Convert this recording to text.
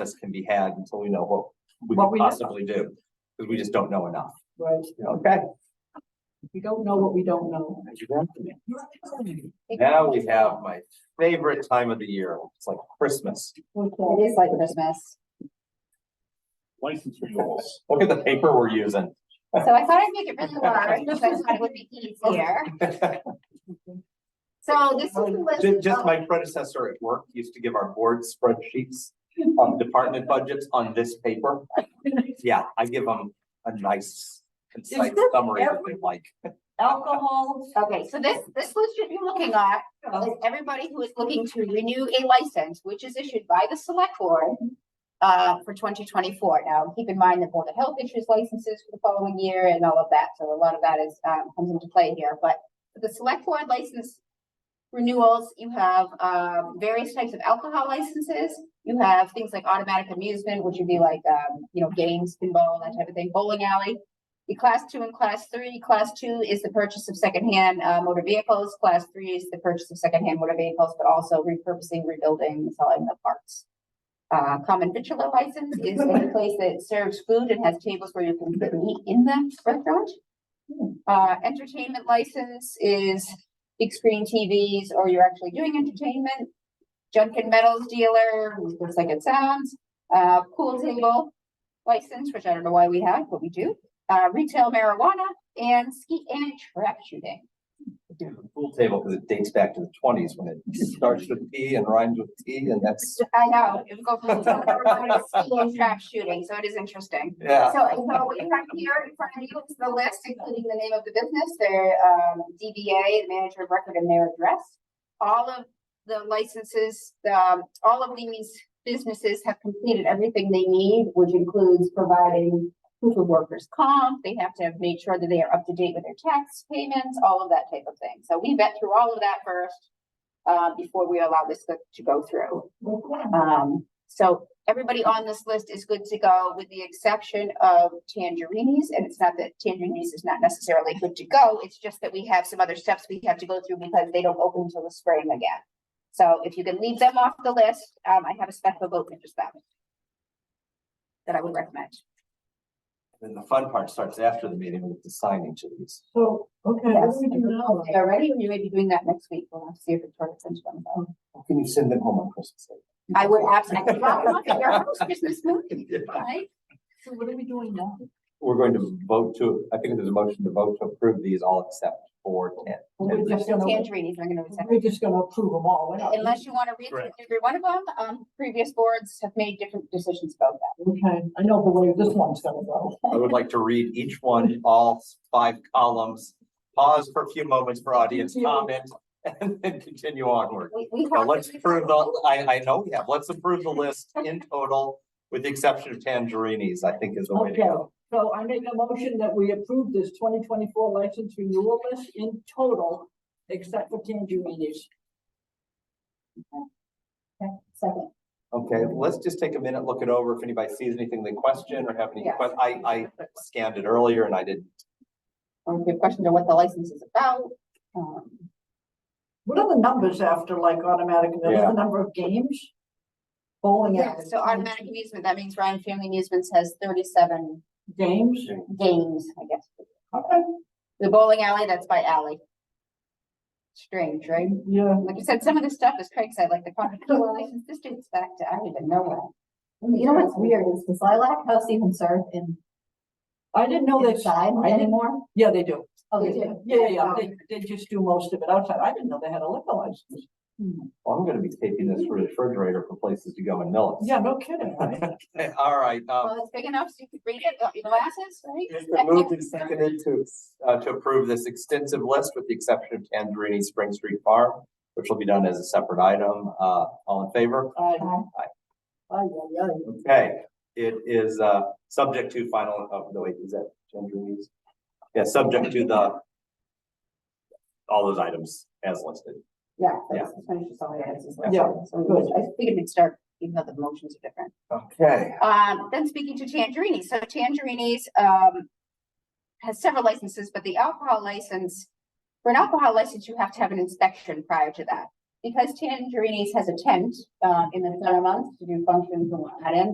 process can be had until we know what we What could we know. possibly do. Because we just don't know enough. Right, Okay, we don't know what we don't know. now we have my favorite time of the year. It's like Christmas. It is like Christmas. license renewals. Look at the paper we're using. So I thought I'd make it really large because I thought it would be easier. So this is the list. Ju- Just of- my predecessor at work used to give our board spreadsheets on department budgets on this paper. Yeah, I give them a nice concise good summary that they like. Alcohol. Okay, so this, this list that you're looking at uh, is everybody who is looking to renew a license, which is issued by the select board uh, for twenty twenty-four. Now, keep in mind that Board of Health issues licenses for the following year and all of that, so a lot of that is, um, comes into play here, but for the select board license renewals, you have, um, various types of alcohol licenses. You have things like automatic amusement, which would be like, um, you know, games, pinball, that type of thing, bowling alley. The class two and class three, class two is the purchase of secondhand uh motor vehicles, class three is the purchase of secondhand motor vehicles, but also repurposing, rebuilding, selling the parts. Uh, common vitriol license is any place that serves food and has tables where you can sit and eat in the restaurant. Uh, entertainment license is big screen TVs or you're actually doing entertainment. Junk and metals dealer, looks like it sounds, uh, pool table license, which I don't know why we have, but we do uh, retail marijuana and ski and trap shooting. The Pool table, because it dates back to the twenties when it starts with P and rhymes with T and that's, I know, it would go from retail marijuana to ski and trap shooting, so it is interesting. yeah. So, so what you have here in front of you is the list, including the name of the business, their, um, DBA, the manager of record and their address. All of the licenses, um, all of these businesses have completed everything they need, which includes providing proof of workers' comp, they have to have made sure that they are up to date with their tax payments, all of that type of thing. So we vet through all of that first, uh, before we allow this to go through. Um, so everybody on this list is good to go with the exception of Tangerini's. And it's not that Tangerini's is not necessarily good to go. It's just that we have some other steps we have to go through because they don't open until the spring again. So if you can leave them off the list, um, I have a special vote for just them. That I would recommend. Then the fun part starts after the meeting with the signing to these. So, okay, what do we do now? They are ready, and you may be doing that next week. We'll have to see if Victoria sends them. though. Can you send them home on Christmas? Eve? I would absolutely. drop them off at your house Christmas morning, Yeah. right? So what are we doing now? We're going to vote to, I think there's a motion to vote to approve these all except for ten. We're just gonna, Tangerini's, I'm gonna accept. we're just gonna approve them all. We're not- Unless you want to read through Correct. every one of them, um, previous boards have made different decisions about that. Okay, I know the way this one's gonna go. I would like to read each one, all five columns, pause for a few moments for audience comment, and then continue onward. We, we. Now, have- let's approve the, I, I know we have, let's approve the list in total, with the exception of Tangerini's, I think is the way to Okay, go. so I make a motion that we approve this twenty twenty-four license renewal list in total, except for Tangerini's. Second. Okay, let's just take a minute, look it over, if anybody sees anything they question or have any, Yeah. que- I, I scanned it earlier and I didn't Or good question to what the license is about. Um, What are the numbers after like automatic, that's Yeah. the number of games? Bowling yeah, alley. so automatic amusement, that means Ryan Family Amusements has thirty-seven Games, games, I guess. okay, The bowling alley, that's by alley. Strange, right? yeah. Like you said, some of the stuff is Craig said, like the contractual license, this dates back to, I don't even know when. You know what's weird is does Lilac House even serve in I didn't know they inside anymore? Yeah, they do. Oh, they do. Yeah, yeah, yeah, they, they just do most of it outside. I didn't know they had a liquor license. Well, I'm gonna be taking this refrigerator for places to go in Millis. Yeah, no kidding. right? Okay, All right, um, Well, it's big enough so you could read it, without your glasses, right? it's been moved and seconded to, uh, to approve this extensive list with the exception of Tangerini Spring Street Farm, which will be done as a separate item. Uh, all in favor? Aye. Aye. Aye, aye, aye. Okay, it is, uh, subject to final, oh, no, wait, is that Tangerini's? Yeah, subject to the all those items as listed. Yeah, that's as much as all I had, is what I Yeah, said. So good. I figured we'd start, even though the motions are different. Okay. Um, then speaking to Tangerini's, so Tangerini's, um, has several licenses, but the alcohol license, for an alcohol license, you have to have an inspection prior to that. Because Tangerini's has a tent, um, in the summer months to do functions and whatnot, and